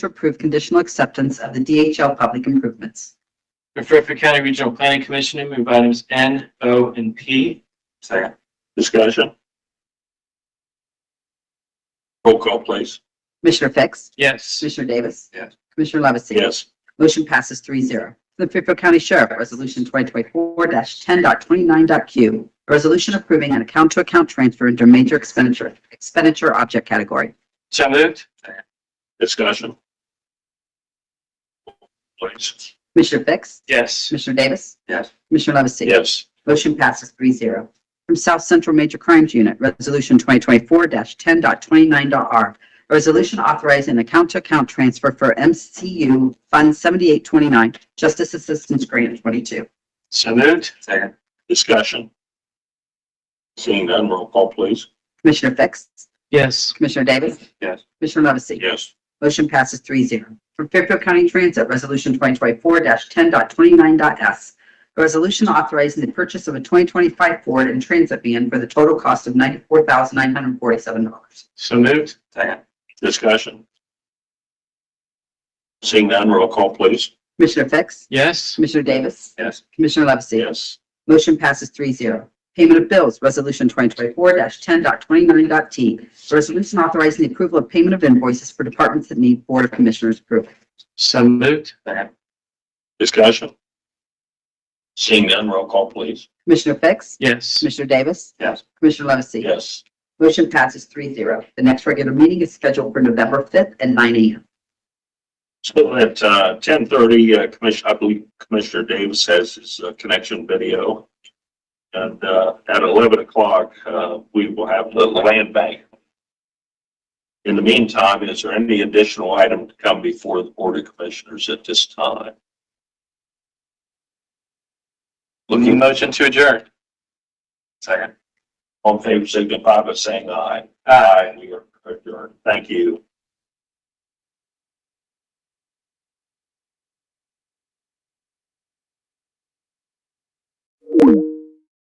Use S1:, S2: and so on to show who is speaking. S1: to approve conditional acceptance of the DHL public improvements.
S2: For Fairfield County Regional Planning Commission, I move items N, O, and P.
S3: Second.
S4: Discussion? Roll call, please.
S1: Commissioner Fix?
S2: Yes.
S1: Commissioner Davis?
S3: Yes.
S1: Commissioner Levesey?
S4: Yes.
S1: Motion passes three zero. The Fairfield County Sheriff, Resolution 2024-10.29.q, a resolution approving an account-to-account transfer under major expenditure, expenditure object category.
S2: So moved.
S4: Discussion? Please.
S1: Commissioner Fix?
S2: Yes.
S1: Commissioner Davis?
S3: Yes.
S1: Commissioner Levesey?
S4: Yes.
S1: Motion passes three zero. From South Central Major Crimes Unit, Resolution 2024-10.29.r, a resolution authorizing account-to-account transfer for MCU Fund 7829, Justice Assistance Grant 22.
S2: So moved.
S3: Second.
S4: Discussion? Seeing none, roll call, please.
S1: Commissioner Fix?
S2: Yes.
S1: Commissioner Davis?
S3: Yes.
S1: Commissioner Levesey?
S4: Yes.
S1: Motion passes three zero. From Fairfield County Transit, Resolution 2024-10.29.s, a resolution authorizing the purchase of a 2025 Ford and Transit van for the total cost of $94,947.
S2: So moved.
S3: Second.
S4: Discussion? Seeing none, roll call, please.
S1: Commissioner Fix?
S2: Yes.
S1: Commissioner Davis?
S3: Yes.
S1: Commissioner Levesey?
S4: Yes.
S1: Motion passes three zero. Payment of bills, Resolution 2024-10.29.t, a resolution authorizing the approval of payment of invoices for departments that need Board of Commissioners approval.
S2: So moved.
S3: Second.
S4: Discussion? Seeing none, roll call, please.
S1: Commissioner Fix?
S2: Yes.
S1: Commissioner Davis?
S3: Yes.
S1: Commissioner Levesey?
S4: Yes.
S1: Motion passes three zero. The next regular meeting is scheduled for November 5th at nine a.m.
S4: So at uh, 10:30, uh, Commissioner, I believe Commissioner Davis has his uh, connection video. And uh, at 11 o'clock, uh, we will have the land bank. In the meantime, is there any additional item to come before the Board of Commissioners at this time?
S2: Looking
S4: Looking,
S2: motion to adjourn.
S3: Second.
S4: on favor, signify by saying aye. Aye. We are adjourned. Thank you.